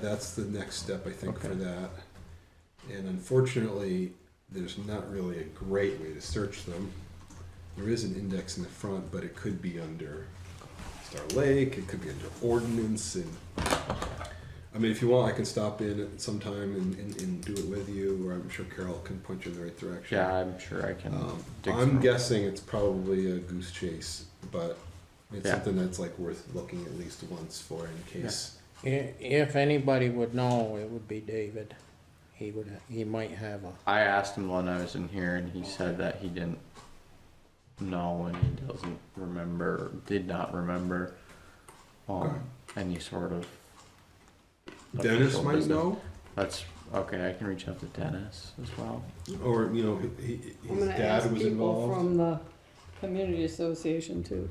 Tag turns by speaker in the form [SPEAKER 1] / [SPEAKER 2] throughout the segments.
[SPEAKER 1] That's the next step, I think, for
[SPEAKER 2] Okay.
[SPEAKER 1] that. And unfortunately, there's not really a great way to search them. There is an index in the front, but it could be under Star Lake, it could be under ordinance and I mean if you want I can stop in at some time and, and, and do it with you or I'm sure Carol can point you in the right direction.
[SPEAKER 2] Yeah, I'm sure I can.
[SPEAKER 1] Um,
[SPEAKER 2] dig
[SPEAKER 1] I'm
[SPEAKER 2] through.
[SPEAKER 1] guessing it's probably a goose chase, but it's
[SPEAKER 2] Yeah.
[SPEAKER 1] something that's like worth looking at least once for in case.
[SPEAKER 3] I- If anybody would know, it would be David. He would, he might have a,
[SPEAKER 2] I asked him when I was in here, and he said that he didn't know and he doesn't remember, did not remember um,
[SPEAKER 1] Okay.
[SPEAKER 2] any sort of.
[SPEAKER 1] Dennis
[SPEAKER 2] official
[SPEAKER 1] might
[SPEAKER 2] business.
[SPEAKER 1] know.
[SPEAKER 2] That's okay. I can reach out to Dennis as well.
[SPEAKER 1] Or, you know, he, he-
[SPEAKER 4] I'm
[SPEAKER 1] his
[SPEAKER 4] gonna
[SPEAKER 1] dad
[SPEAKER 4] ask
[SPEAKER 1] was
[SPEAKER 4] people
[SPEAKER 1] involved.
[SPEAKER 4] from the community association too.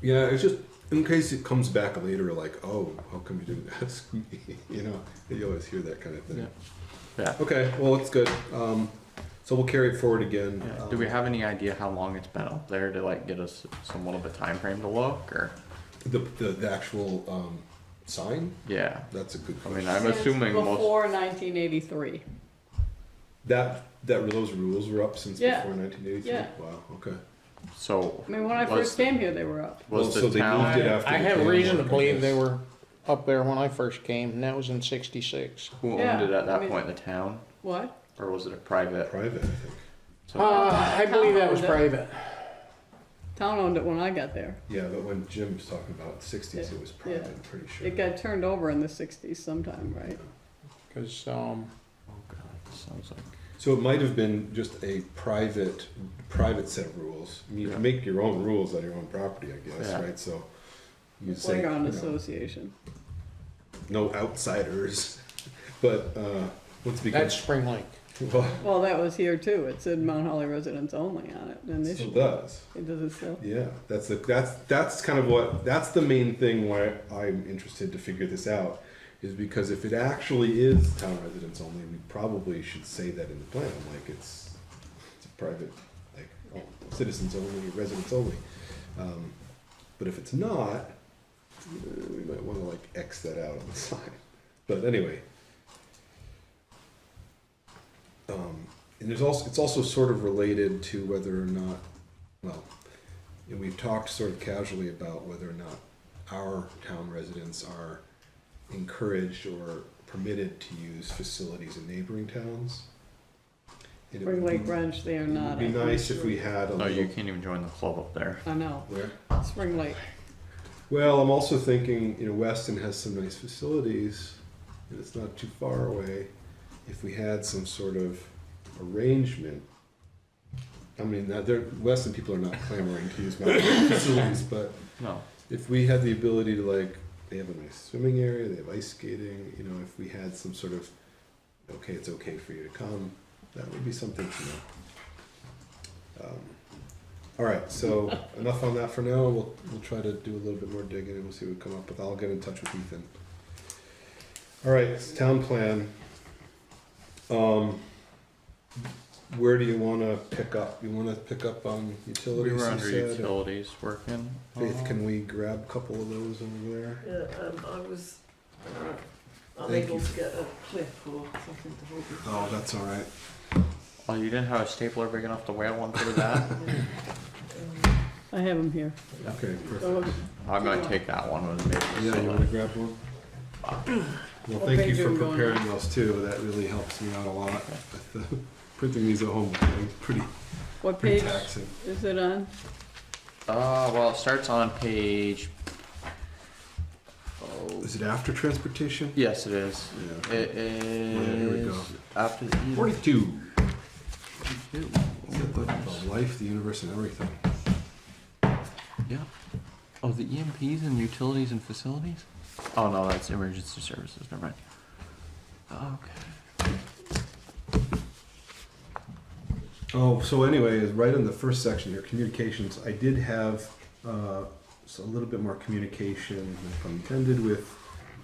[SPEAKER 1] Yeah, it's just in case it comes back later, like, oh, how come you didn't ask me? you know, you always hear that kind of thing.
[SPEAKER 2] Yeah. Yeah.
[SPEAKER 1] Okay, well, it's good. Um, so we'll carry it forward again.
[SPEAKER 2] Yeah.
[SPEAKER 1] Um,
[SPEAKER 2] Do we have any idea how long it's been up there to like get us somewhat of a time frame to look or?
[SPEAKER 1] the, the, the actual um, sign?
[SPEAKER 2] Yeah.
[SPEAKER 1] That's a good
[SPEAKER 2] I
[SPEAKER 1] question.
[SPEAKER 2] mean, I'm
[SPEAKER 4] Since
[SPEAKER 2] assuming most.
[SPEAKER 4] Before nineteen eighty-three,
[SPEAKER 1] that that those rules were up since
[SPEAKER 4] Yeah.
[SPEAKER 1] before 1983.
[SPEAKER 4] Yeah.
[SPEAKER 1] Wow. Okay.
[SPEAKER 2] So
[SPEAKER 4] I mean, when I
[SPEAKER 2] Was-
[SPEAKER 4] first came here, they were up.
[SPEAKER 1] Well,
[SPEAKER 2] was
[SPEAKER 1] so
[SPEAKER 2] the
[SPEAKER 1] they moved
[SPEAKER 2] town?
[SPEAKER 1] it after
[SPEAKER 3] I
[SPEAKER 1] the
[SPEAKER 3] have
[SPEAKER 1] plan
[SPEAKER 3] reason to
[SPEAKER 1] work, I
[SPEAKER 3] believe they
[SPEAKER 1] guess.
[SPEAKER 3] were up there when I first came, and that was in sixty-six.
[SPEAKER 2] Who owned
[SPEAKER 4] Yeah,
[SPEAKER 2] it at
[SPEAKER 4] I
[SPEAKER 2] that
[SPEAKER 4] mean-
[SPEAKER 2] point? The town,
[SPEAKER 4] What?
[SPEAKER 2] or was it a private? Oh,
[SPEAKER 1] private. I think.
[SPEAKER 2] So,
[SPEAKER 3] Uh, I believe that was
[SPEAKER 4] Town owned
[SPEAKER 3] private.
[SPEAKER 4] Town owned it when I got there.
[SPEAKER 1] Yeah, but when Jim's talking about 60s, it was private.
[SPEAKER 4] Yeah.
[SPEAKER 1] I'm pretty sure.
[SPEAKER 4] It got turned over in the sixties sometime, right?
[SPEAKER 3] Cause, um,
[SPEAKER 2] oh god, this sounds like.
[SPEAKER 1] So it might have been just a private, private set of rules. I mean, You
[SPEAKER 2] Yeah.
[SPEAKER 1] can make your own rules on your own property, I guess,
[SPEAKER 2] Yeah.
[SPEAKER 1] right? So you say you
[SPEAKER 4] Playground
[SPEAKER 1] know,
[SPEAKER 4] association.
[SPEAKER 1] no outsiders, but uh, once it
[SPEAKER 3] that's
[SPEAKER 1] becomes
[SPEAKER 3] Spring Lake.
[SPEAKER 1] well,
[SPEAKER 4] Well, that was here too. It said Mount Holly residents only on it, and
[SPEAKER 1] it
[SPEAKER 4] they
[SPEAKER 1] still
[SPEAKER 4] should,
[SPEAKER 1] does.
[SPEAKER 4] it doesn't still.
[SPEAKER 1] Yeah, that's the that's that's kind of what that's the main thing why I'm interested to figure this out is because if it actually is town residents only, we probably should say that in the plan, like it's it's a private, like oh, citizens only, residents only. Um, but if it's not, eh, we might want to like X that out on the sign. But anyway, um, and there's also it's also sort of related to whether or not, well, and we've talked sort of casually about whether or not our town residents are encouraged or permitted to use facilities in neighboring towns. And it
[SPEAKER 4] Spring
[SPEAKER 1] would be-
[SPEAKER 4] Lake Ranch, they are
[SPEAKER 1] it
[SPEAKER 4] not.
[SPEAKER 1] would be
[SPEAKER 4] I'm
[SPEAKER 1] nice if
[SPEAKER 4] sure.
[SPEAKER 1] we had a
[SPEAKER 2] No,
[SPEAKER 1] little
[SPEAKER 2] you can't even join the club up there.
[SPEAKER 4] I know,
[SPEAKER 1] where-
[SPEAKER 4] Spring Lake.
[SPEAKER 1] Well, I'm also thinking, you know, Weston has some nice facilities, and it's not too far away. If we had some sort of arrangement, I mean, that there, Weston people are not clamoring to use mountain facilities, but
[SPEAKER 2] No.
[SPEAKER 1] if we had the ability to like, they have a nice swimming area, they have ice skating, you know, if we had some sort of, okay, it's okay for you to come, that would be something to know. Um, all right, so enough on that for now. We'll we'll try to do a little bit more digging and we'll see what we come up with. I'll get in touch with Ethan. All right, town plan. Um, where do you want to pick up? You want to pick up on
[SPEAKER 2] We
[SPEAKER 1] utilities?
[SPEAKER 2] were
[SPEAKER 1] you
[SPEAKER 2] under
[SPEAKER 1] said?
[SPEAKER 2] utilities working.
[SPEAKER 1] Faith,
[SPEAKER 2] Um,
[SPEAKER 1] can we grab a couple of those over there?
[SPEAKER 5] Yeah, um, I was uh,
[SPEAKER 1] Thank
[SPEAKER 5] unable
[SPEAKER 1] you.
[SPEAKER 5] to get a clip or something to hold it.
[SPEAKER 1] Oh, that's all right.
[SPEAKER 2] Oh, you didn't have a stapler big enough to whale one through that?
[SPEAKER 5] Um,
[SPEAKER 4] I have them here.
[SPEAKER 1] Okay, perfect.
[SPEAKER 4] So
[SPEAKER 2] I'm gonna take that one with me.
[SPEAKER 1] Yeah, you want to grab one? Well,
[SPEAKER 4] What
[SPEAKER 1] thank you
[SPEAKER 4] page are
[SPEAKER 1] for
[SPEAKER 4] we going on?
[SPEAKER 1] preparing those too. That really helps me out a lot. with the- Printing these at home, is pretty,
[SPEAKER 4] What
[SPEAKER 1] pretty
[SPEAKER 4] page
[SPEAKER 1] taxing.
[SPEAKER 4] is it on?
[SPEAKER 2] Uh, well, it starts on page. Oh,
[SPEAKER 1] Is it after transportation?
[SPEAKER 2] yes, it is.
[SPEAKER 1] Yeah.
[SPEAKER 2] It
[SPEAKER 1] here we
[SPEAKER 2] is
[SPEAKER 1] go.
[SPEAKER 2] after the. E.
[SPEAKER 1] Forty-two.
[SPEAKER 2] Ew.
[SPEAKER 1] Is that the- the Life, the universe and everything.
[SPEAKER 2] Yeah. Oh, the EMPs and utilities and facilities? Oh, no, that's emergency services, never mind. Okay.
[SPEAKER 1] Oh, so anyway, is right in the first section here, communications, I did have uh, so a little bit more communication, if I'm intended, with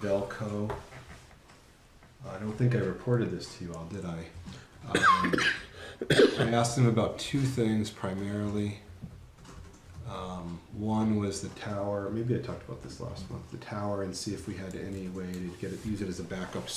[SPEAKER 1] Velco. I don't think I reported this to you all, did I? Um, I asked them about two things primarily. Um, Um, one was the tower. Maybe I talked about this last month. The tower, and see if we had any way to get it, use it as a backup